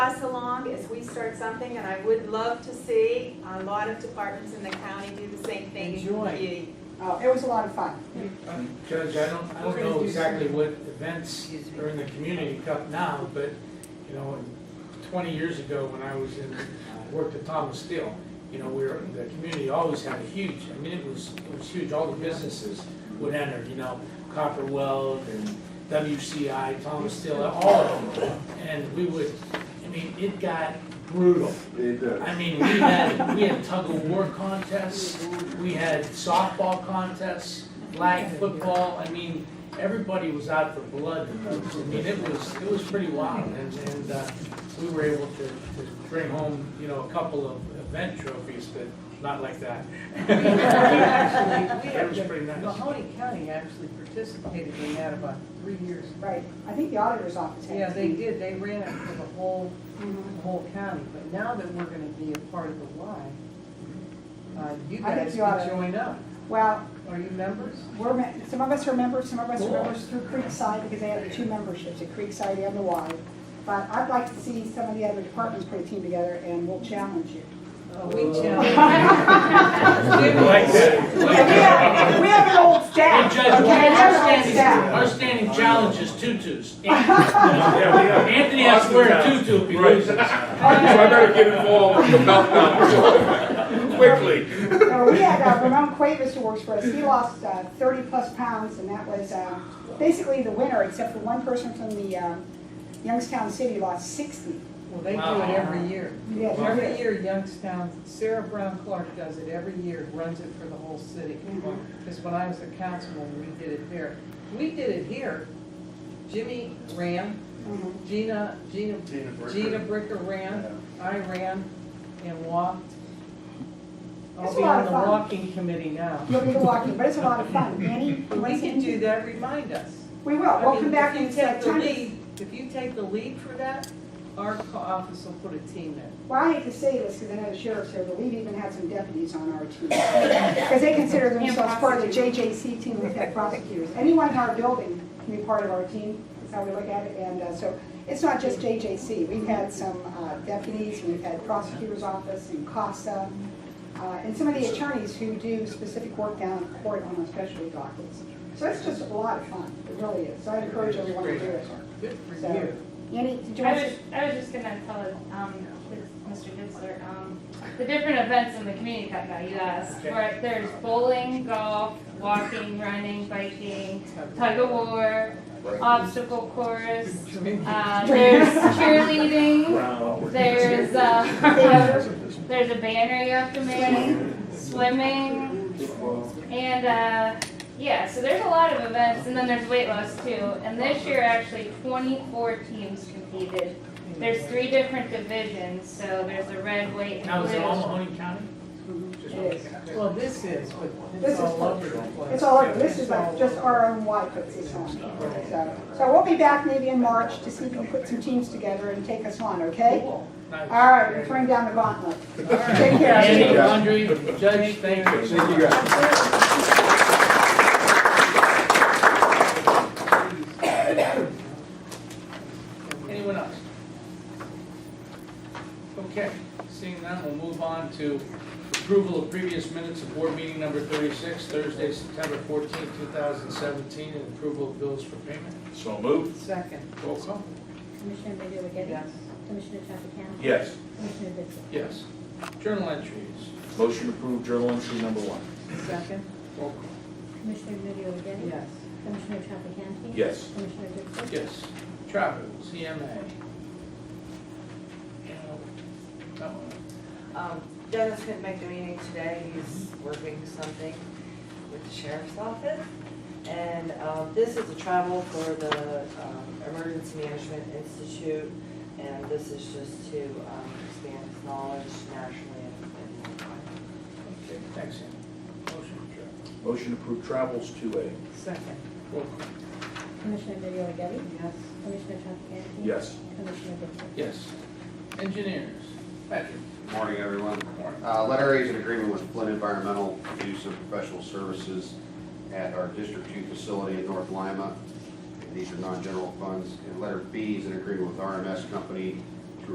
us along as we start something, and I would love to see a lot of departments in the county do the same thing. Enjoy. You- Oh, it was a lot of fun. Um, Judge, I don't, I don't know exactly what events are in the community cup now, but, you know, twenty years ago, when I was in, I worked at Thomas Steel, you know, we were, the community always had a huge, I mean, it was, it was huge, all the businesses would enter, you know, Copper Weld and WCI, Thomas Steel, all of them. And we would, I mean, it got brutal. It does. I mean, we had, we had tug of war contests, we had softball contests, flag football, I mean, everybody was out for blood. I mean, it was, it was pretty wild, and, and, uh, we were able to, to bring home, you know, a couple of event trophies, but not like that. We actually, we That was have, pretty the- nice. Mahoney County actually participated in that about three years. Right, I think the auditor's office had. Yeah, to they be- did, they ran it for the whole, Mhm. the whole county, but now that we're gonna be a part of the Y, uh, you I think guys you ought can to- join up. Well, Are you members? we're, me- some of us are members, some of us are Cool. members through Creekside, because they have two memberships, at Creekside and the Y. But I'd like to see some of the other departments put a team together, and we'll challenge you. Oh, we challenge. Like that. We have, we have an old Hey, staff, okay, Judge, we our have an old standing, staff. our standing challenge is tutus. Anthony has to wear a tutu if he loses. So I better get involved with the meltdown quickly. No, we had uh, Ramon Cuevas who works for us, he lost thirty plus pounds, and that was uh, basically the winner, except for one person from the um, Youngstown City lost sixty. Well, they do it every year. Yeah, Every year Youngstown, Sarah Brown Clark does it every year, runs it for the whole city. Mhm. Because when I was a councilman, we did it there. We did it here. Jimmy ran, Mhm. Gina, Gina, Gina Bricker. Gina Bricker ran, I ran and walked. I'll It's a be lot on of the fun. walking committee now. You'll be walking, but it's a lot of fun. Annie, you want We to can do see? that, remind us. We will, I we'll mean, come back if you and say, take the time lead- If you take the lead for that, our co- office will put a team in. Well, I hate to say this, because I know the sheriff's here, but we've even had some deputies on our team. Because they consider themselves part of the JJC team, we've had prosecutors. Anyone in our building can be part of our team, is how we look at it. And uh, so it's not just JJC. We've had some uh, deputies, we've had prosecutor's office and CASA, uh, and some of the attorneys who do specific work down in court on those specialty dockets. So it's just a lot of fun, it really is. So I encourage everyone to do it. Good for So- you. Yanni, did you I want was, to? I was just gonna tell, um, Mr. Ditzler, um, the different events in the community cup that you asked, where there's bowling, golf, walking, running, biking, tug of war, obstacle course, uh, there's cheerleading, there's, uh, there's a banner you have to make, swimming, and, uh, yeah, so there's a lot of events, and then there's weight loss too, and this year actually twenty-four teams competed. There's three different divisions, so there's a red, white, Now, and is it all blue. Mahoney County? Just- Mm-hmm. It is. Well, this is, but This it's is all over the place. It's all over, this is like just our own white puts this on. So, so we'll be back maybe in March to see if we can put some teams together and take us on, okay? Cool. Nice. All right, we're throwing down the gauntlet. Take Andy, care. Andre, Judge, thank you. Thank you guys. Anyone else? Okay, seeing none, we'll move on to approval of previous minutes of board meeting number thirty-six, Thursday, September fourteenth, two thousand seventeen, and approval of bills for payment. So moved. Second, Roll call. Commissioner Middy O'Geady? yes. Commissioner Traficant? Yes. Commissioner Ditzler? Yes. Journal entries. Motion approved, journal entry number one. Second, Roll call. Commissioner Middy O'Geady? yes. Commissioner Traficant? Yes. Commissioner Ditzler? Yes. Travel, CMA. No. Um, Dennis couldn't make the meeting today, he's working something with the sheriff's office. And, um, this is a travel for the, um, Emergency Management Institute, and this is just to, um, expand his knowledge nationally and and worldwide. Okay, thanks, Andy. Motion, travel. Motion approved, travels two A. Second, Roll call. Commissioner Middy O'Geady? yes. Commissioner Traficant? Yes. Commissioner Ditzler? Yes. Engineers. Patrick. Morning, everyone. Uh, Letter A is an agreement with Flint Environmental to do some professional services at our District Two facility in North Lima. These are non-general funds. And letter B is an agreement with RMS Company